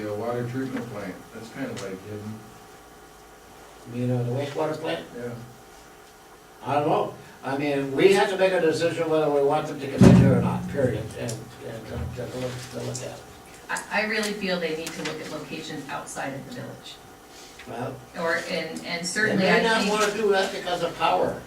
The uh, water treatment plant, that's kind of like hidden, You know, the wastewater plant, yeah. I don't know. I mean, we have to make a decision whether we want them to come in here or not, period, and, and to, to look, to look at. it. I, I really feel they need to look at locations outside of the village, Well, or, and, and they certainly I may not think. wanna do that because of power.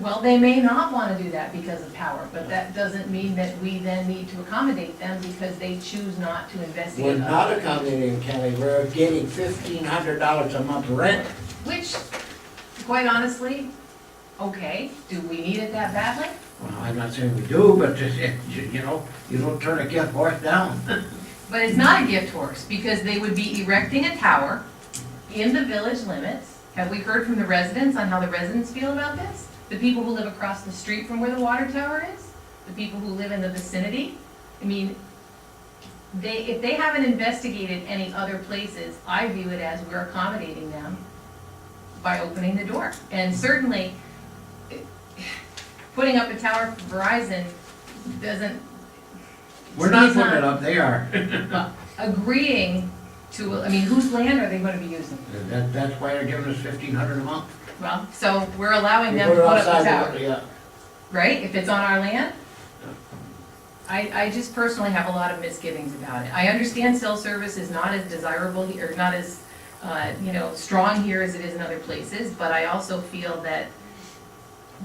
Well, they may not wanna do that because of power, but that doesn't mean that we then need to accommodate them because they choose not to We're investigate not us. accommodating Kelly, we're getting fifteen hundred dollars a month rent. Which, quite honestly, okay, do we need it that badly? Well, I'm not saying we do, but, just, eh, you you know, you don't turn a gift horse down. But it's not a gift horse, because they would be erecting a tower in the village limits. Have we heard from the residents on how the residents feel about this? The people who live across the street from where the water tower is? The people who live in the vicinity? I mean, they, if they haven't investigated any other places, I view it as we're accommodating them by opening the door. And certainly, eh, putting up a tower for Verizon doesn't We're not He's not- putting it up, they are. agreeing to, I mean, whose land are they gonna be using? That, that's why they're giving us fifteen hundred a month. Well, so we're allowing We them to put it put up the outside, tower, yeah. right, if it's on our land? I, I just personally have a lot of misgivings about it. I understand cell service is not as desirable, he- or not as, uh, you know, strong here as it is in other places, but I also feel that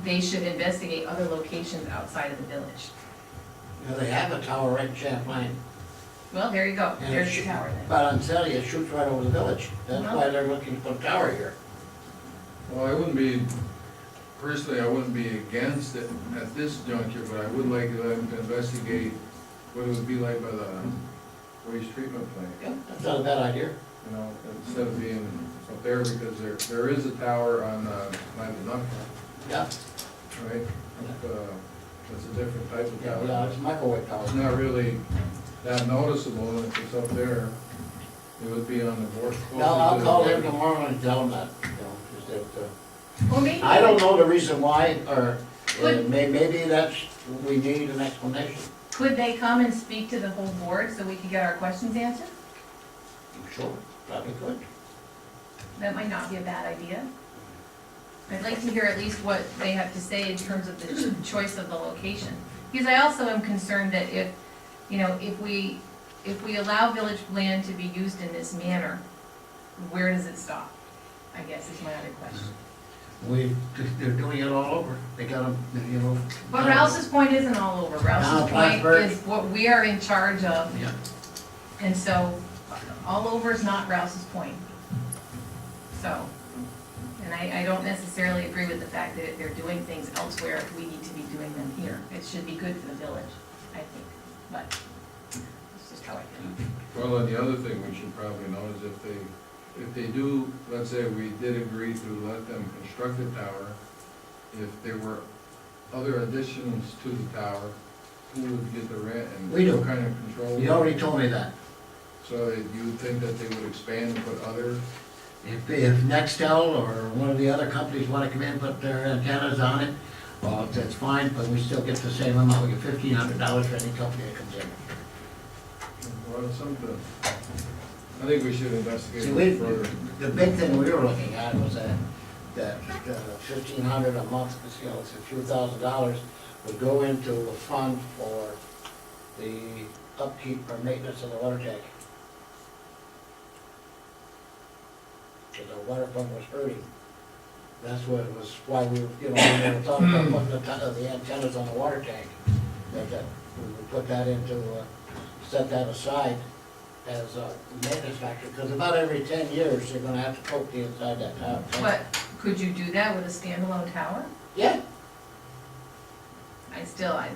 they should investigate other locations outside of the village. Yeah, they have a tower right in Champlain. Well, there you go, And it there's the should- tower then. But I'm telling you, it shoots right over the village. That's Well- why they're looking to put a tower here. Well, I wouldn't be, personally, I wouldn't be against it at this juncture, but I would like them to investigate what it would be like by the waste treatment plant, Yeah, That's not a bad idea. you know, instead of being up there, because there, there is a tower on, uh, Maganuk, Yeah, right? Uh, That's a different type of yeah, yeah, tower. it's microwave tower. It's not really that noticeable, and if it's up there, it would be on the board. No, I'll call him tomorrow and tell him that, you know, just that, uh, Well, maybe- I don't know the reason why, or uh, Good. may, maybe that's, we need an explanation. Could they come and speak to the whole board so we could get our questions answered? Sure. Probably could. That might not be a bad idea. I'd like to hear at least what they have to say in terms of the ch- choice of the location. Because I also am concerned that if, you know, if we, if we allow village land to be used in this manner, where does it stop? I guess is my other question. We, they're doing it all over. They got them, you know. But Rouse's point isn't all over. No, Rouse's point Plattsburgh. is what we are in charge of, Yeah. and so all over is not Rouse's point. So, and I, I don't necessarily agree with the fact that if they're doing things elsewhere, we need to be doing them here. It should be good for the village, I think, but it's just how I feel. Well, and the other thing we should probably know is if they, if they do, let's say we did agree to let them construct the tower, if there were other additions to the tower, who would get the rent and We do. what kind of control? You already told me that. So that you would think that they would expand and put other, If, if Nextel or one of the other companies wanna come in and put their antennas on it, well, that's fine, but we still get the same amount, we get fifteen hundred dollars for any company that comes in. or something. I think we should investigate See, a we, little further. the big thing we were looking at was that, that uh, fifteen hundred a month, you know, it's a few thousand dollars, would go into a fund for the upkeep or maintenance of the water tank. Cause the water pump was hurting. That's what it was, why we, were, you know, we were talking about putting the, ton- the antennas on the water tank. That, that, we would put that into, uh, set that aside as a maintenance factor, because about every ten years, they're gonna have to coat the inside that tower. But could you do that with a standalone tower? Yeah, I still, I,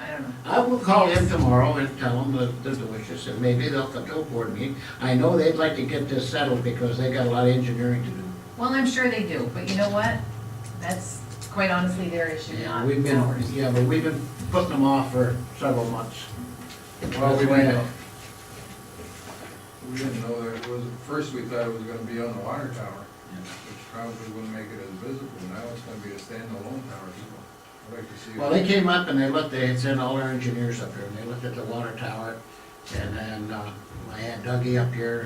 I don't know. I will call him tomorrow and tell him the, the wishes, and maybe they'll come to a board meeting. I know they'd like to get this settled, because they got a lot of engineering to do. Well, I'm sure they do, but you know what? That's quite honestly their issue, not And we've been, ours. yeah, but we've been putting them off for several months. Well, we That's why might I- not. We didn't know that it was, first we thought it was gonna be on the water tower, which probably wouldn't make it as visible. Now it's gonna be a standalone tower, so I'd like to see. Well, they came up and they looked, they had sent all our engineers up here, and they looked at the water tower, and then, uh, I had Dougie up here,